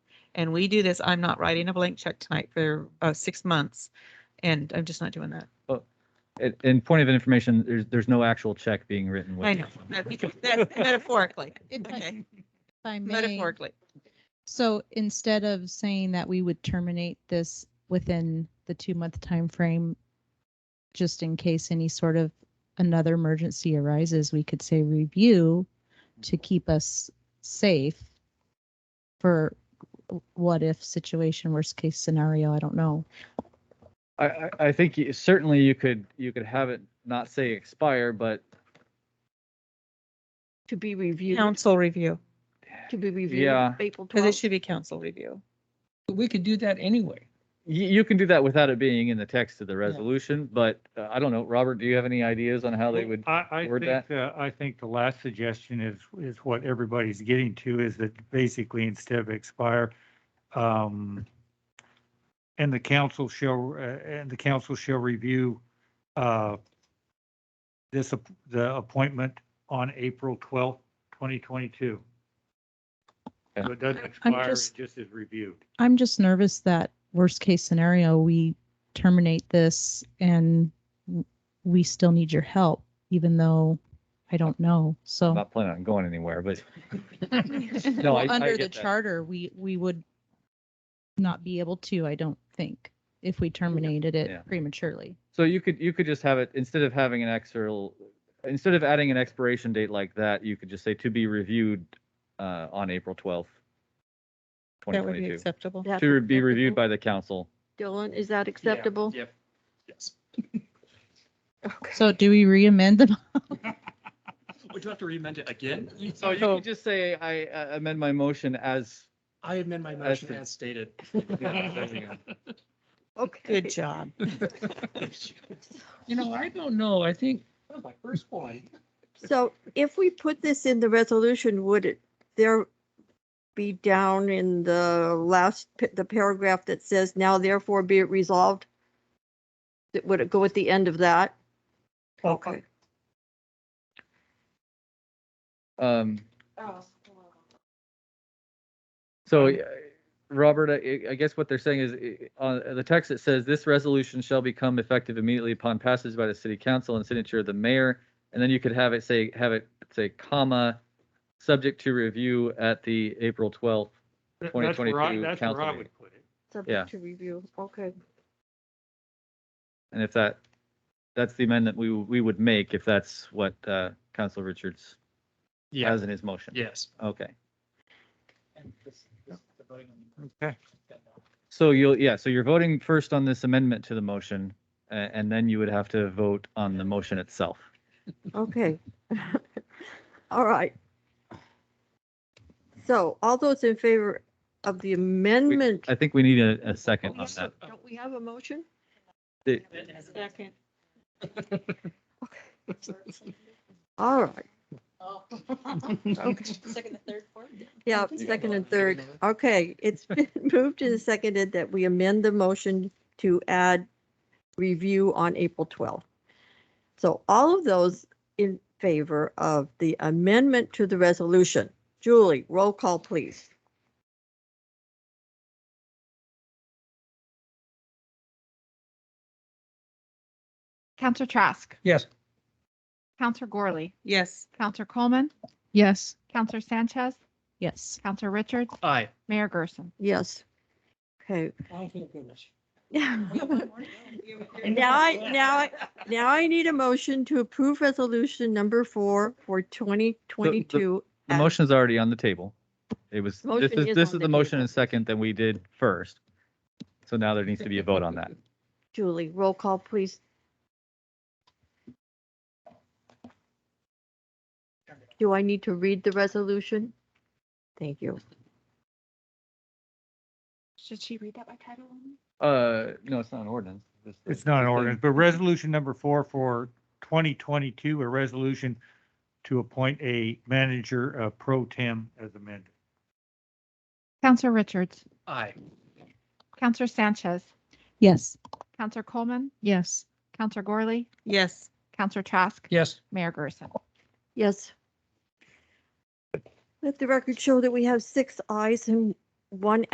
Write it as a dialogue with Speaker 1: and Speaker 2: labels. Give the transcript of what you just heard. Speaker 1: and we do this, I'm not writing a blank check tonight for uh, six months. And I'm just not doing that.
Speaker 2: In, in point of information, there's, there's no actual check being written. with
Speaker 1: I know,
Speaker 2: this.
Speaker 1: that- because that's metaphorically,
Speaker 3: If I-
Speaker 1: okay,
Speaker 3: if I may,
Speaker 1: metaphorically.
Speaker 3: so instead of saying that we would terminate this within the two-month time frame, just in case any sort of another emergency arises, we could say review to keep us safe for what if situation, worst case scenario, I don't know.
Speaker 2: I, I, I think you- certainly you could, you could have it not say expire, but
Speaker 4: To be reviewed,
Speaker 1: Council review,
Speaker 4: to be reviewed.
Speaker 2: Yeah.
Speaker 4: April
Speaker 1: because it
Speaker 4: twelfth.
Speaker 1: should be council review.
Speaker 5: We could do that anyway.
Speaker 2: you, you can do that without it being in the text of the resolution, but uh, I don't know. Robert, do you have any ideas on how they would?
Speaker 6: I, I
Speaker 2: word
Speaker 6: think, uh, I think the last suggestion is, is what everybody's getting to is that basically instead of expire, um, and the council shall, uh, and the council shall review, uh, this, app- the appointment on April twelfth, twenty twenty-two.
Speaker 2: Okay.
Speaker 6: So it doesn't expire, it
Speaker 3: just-
Speaker 6: just is reviewed.
Speaker 3: I'm just nervous that worst case scenario, we terminate this and w- we still need your help, even though I don't know.
Speaker 2: I'm
Speaker 3: So
Speaker 2: not planning on going anywhere, but no, I,
Speaker 3: Well,
Speaker 2: I
Speaker 3: under the
Speaker 2: get that.
Speaker 3: charter, we, we would not be able to, I don't think, if we terminated
Speaker 2: Yeah.
Speaker 3: it prematurely.
Speaker 2: So you could, you could just have it, instead of having an external, instead of adding an expiration date like that, you could just say to be reviewed, uh, on April twelfth. Twenty
Speaker 1: That would be
Speaker 2: twenty-two,
Speaker 1: acceptable.
Speaker 2: to be reviewed by the council.
Speaker 4: Dylan, is that acceptable?
Speaker 7: Yep. Yes.
Speaker 3: So do we re-amend the,
Speaker 7: Would you Oh, have to remend it again?
Speaker 2: So you could just say, I uh, amend my motion as,
Speaker 7: I amend my
Speaker 2: That's
Speaker 7: motion
Speaker 2: the-
Speaker 7: as stated.
Speaker 4: Okay.
Speaker 1: Good job.
Speaker 5: You know, I don't know. I think
Speaker 7: My first one.
Speaker 4: So if we put this in the resolution, would it, there be down in the last, pa- the paragraph that says now therefore be it resolved? That- Would it go at the end of that? Okay.
Speaker 2: um. So, uh, Robert, I, I guess what they're saying is, uh, on the text, it says, this resolution shall become effective immediately upon passage by the city council and signature of the mayor. And then you could have it say, have it say comma, subject to review at the April twelfth.
Speaker 6: That's where I-
Speaker 2: 2022
Speaker 6: That's where
Speaker 2: council
Speaker 6: I
Speaker 2: meeting.
Speaker 6: would put it.
Speaker 2: Yeah.
Speaker 4: Subject to review, okay.
Speaker 2: And if that, that's the amendment we, we would make if that's what, uh, Council Richards
Speaker 7: Yeah,
Speaker 2: has in his motion.
Speaker 7: yes.
Speaker 2: Okay.
Speaker 6: Okay.
Speaker 2: So you'll, yeah, so you're voting first on this amendment to the motion, a- and then you would have to vote on the motion itself.
Speaker 4: Okay. All right. So all those in favor of the amendment?
Speaker 2: I think we need a, a second on that.
Speaker 4: Don't we have a motion?
Speaker 2: The-
Speaker 4: Second. All right.
Speaker 8: Second, the third, fourth?
Speaker 4: Yeah, second and third. Okay, it's been moved and seconded that we amend the motion to add review on April 12th. So all of those in favor of the amendment to the resolution. Julie, roll call, please.
Speaker 9: Counselor Trask,
Speaker 5: Yes.
Speaker 9: Counselor Gorley,
Speaker 1: Yes.
Speaker 9: Counselor Coleman,
Speaker 3: yes,
Speaker 9: Counselor Sanchez,
Speaker 3: yes.
Speaker 9: Counselor Richards,
Speaker 7: Aye.
Speaker 9: Mayor Gerson.
Speaker 4: Yes. Okay.
Speaker 5: Oh, thank goodness.
Speaker 4: Now I, now I, now I need a motion to approve resolution number four for 2022.
Speaker 2: The motion's already on the table. It was, this
Speaker 4: Motion
Speaker 2: is,
Speaker 4: is
Speaker 2: this is
Speaker 4: on the
Speaker 2: the motion
Speaker 4: table.
Speaker 2: and second that we did first. So now there needs to be a vote on that.
Speaker 4: Julie, roll call, please. Do I need to read the resolution? Thank you.
Speaker 9: Should she read that by title only?
Speaker 2: Uh, no, it's not an ordinance.
Speaker 6: It's not an ordinance, but resolution number four for twenty twenty-two, a resolution to appoint a manager uh, pro tem as amended.
Speaker 9: Counselor Richards,
Speaker 7: Aye.
Speaker 9: Counselor Sanchez,
Speaker 3: Yes.
Speaker 9: Counselor Coleman,
Speaker 3: Yes.
Speaker 9: Counselor Gorley,
Speaker 1: Yes.
Speaker 9: Counselor Trask,
Speaker 5: Yes.
Speaker 9: Mayor Gerson.
Speaker 4: Yes. Let the record show that we have six ayes and one